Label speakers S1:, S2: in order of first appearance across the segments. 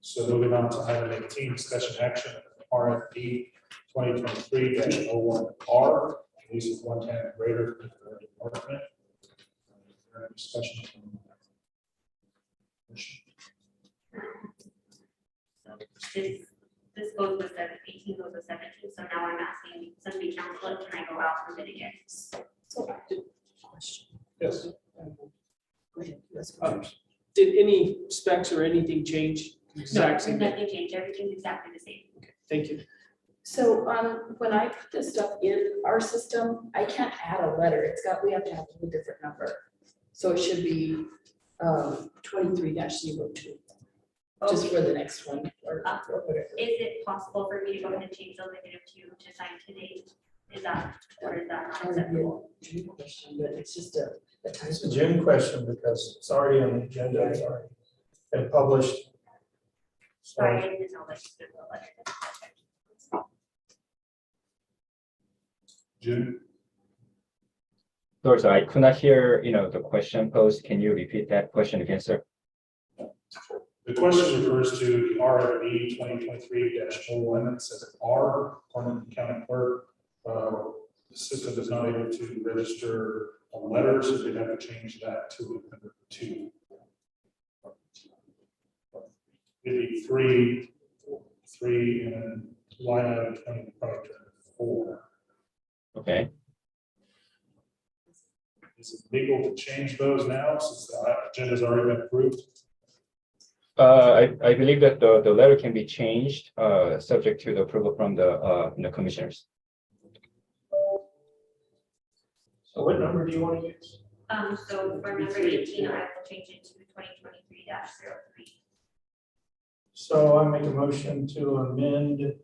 S1: So moving on to item eighteen, discussion action, RFP twenty twenty-three dash oh one R, lease of one ten greater for the department. Any Discussion. from the commission?
S2: So This, this goes with seven, eighteen goes with seventeen, so now I'm asking somebody council, can I go out for mitigate?
S3: So, did- question.
S1: Yes.
S3: Um, Go ahead. Yes.
S4: Um, Did any specs or anything change? Exact same thing.
S2: Nothing changed, everything's exactly the same.
S4: Thank you.
S3: So, um, when I put this stuff in our system, I can't add a letter. It's got, we have to have a whole different number. So it should be, um, twenty-three 2 just for the next one or or whatever.
S2: Is it possible for me to go ahead and change the negative two to sign today? Is that, or is that not
S3: Kind of
S2: acceptable?
S3: a dream question, but it's just a, a type
S5: It's a
S3: of-
S5: Jim question because it's already on the agenda, it's already been published. So
S2: Sorry, I didn't know that you did the letter.
S1: June,
S6: Sorry, sir, I could not hear, you know, the question posed. Can you repeat that question again, sir?
S1: the question refers to the RFP twenty twenty-three dash oh one, it says R, Corman County Clerk. uh, The system is not able to register a letter, so they'd have to change that to a number two. It'd be three, three and line item twenty, probably four.
S6: Okay,
S1: Is it legal to change those now since the agenda's already been approved?
S6: uh, I, I believe that the, the letter can be changed, uh, subject to the approval from the, uh, you know, commissioners.
S5: so what number do you want to use?
S2: Um, so for number eighteen, I will change it to twenty twenty-three 3
S5: So I make a motion to amend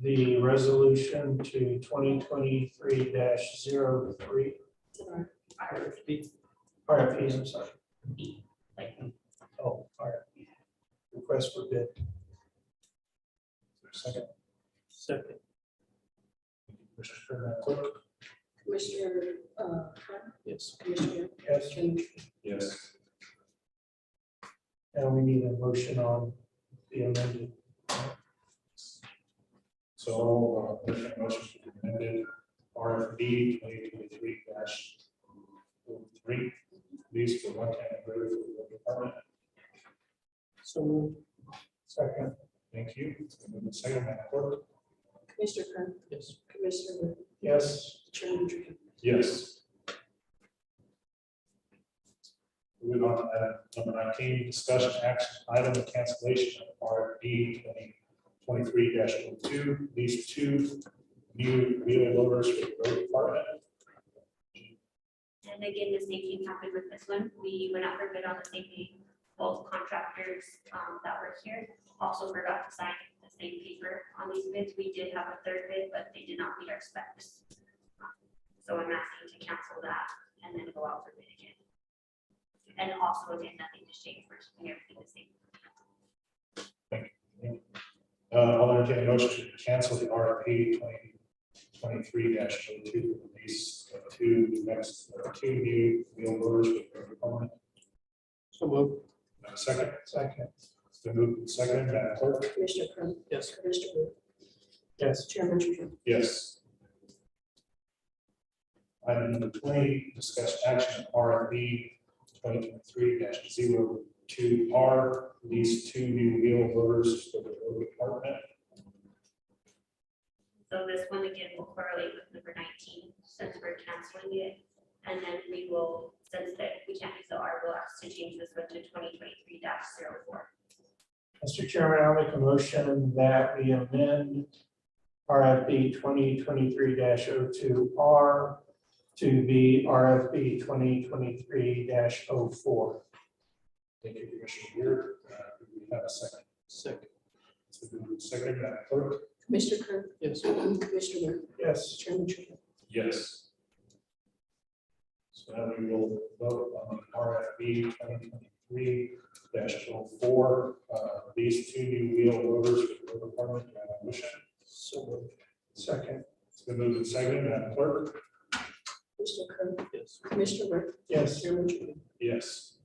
S5: the resolution to twenty twenty-three 3 RFPs, I'm sorry.
S2: like-
S5: Oh, RFP. Request for bid.
S1: Second,
S5: Second.
S1: Commissioner Clerk?
S3: Commissioner, uh, Khan,
S5: Yes.
S3: Commissioner.
S5: Yes,
S3: Strange.
S1: Yes.
S5: and we need a motion on the amended.
S1: So, uh, motion motion to amended RFB twenty twenty-three dash three, lease for one time greater for the department.
S5: So moved. Second.
S1: Thank you. And then the Second, Madam Clerk?
S3: Commissioner Khan,
S5: Yes.
S3: Commissioner
S5: Yes.
S3: Strange.
S1: Yes. Moving on to item number nineteen, discussion action item of cancellation of RFB twenty twenty-three dash two, lease two new wheeler loaders for the road department.
S2: And again, the same thing happened with this one. We went out for bid on the same thing. Both contractors um, that were here also forgot to sign the same paper on these bids. We did have a third bid, but they did not meet our specs. So I'm asking to cancel that and then go out for bid again. And also again, nothing to change. We're keeping everything the same.
S1: Uh, I'll entertain a motion to cancel the RFP twenty twenty-three dash oh two, release of two next, uh, two new wheel loaders with road department.
S4: So moved.
S1: Uh, Second,
S5: Second.
S1: it's been moved and seconded, Madam Clerk?
S3: Commissioner Khan,
S4: Yes.
S3: Commissioner,
S5: Yes.
S3: Chairman Truhill.
S1: Yes. Item number twenty, discuss action RFB twenty twenty-three 2 R, these two new wheel loaders for the road department.
S2: So this one again will correlate with number nineteen, since we're canceling it. And then we will, since that we can't use the R, we'll ask to change this one to twenty twenty-three 4
S5: Mr. Chairman, I'll make a motion that we amend RFP twenty twenty-three 2 R to be RFP twenty twenty-three oh 4
S1: Thank you, Commissioner Weir. Uh, do We have a second.
S4: Second.
S1: It's been moved and seconded, Madam Clerk?
S3: Commissioner Kern,
S4: Yes.
S3: Commissioner,
S5: Yes.
S3: Chairman Truhill.
S1: Yes. So now we will vote on RFB twenty twenty-three dash oh four, uh, these two new wheel loaders for the road department, do I have a motion?
S5: So moved. Second.
S1: It's been moved and seconded, Madam Clerk?
S3: Commissioner Kern,
S4: Yes.
S3: Commissioner,
S5: Yes.
S3: Chairman Truhill.
S1: Yes.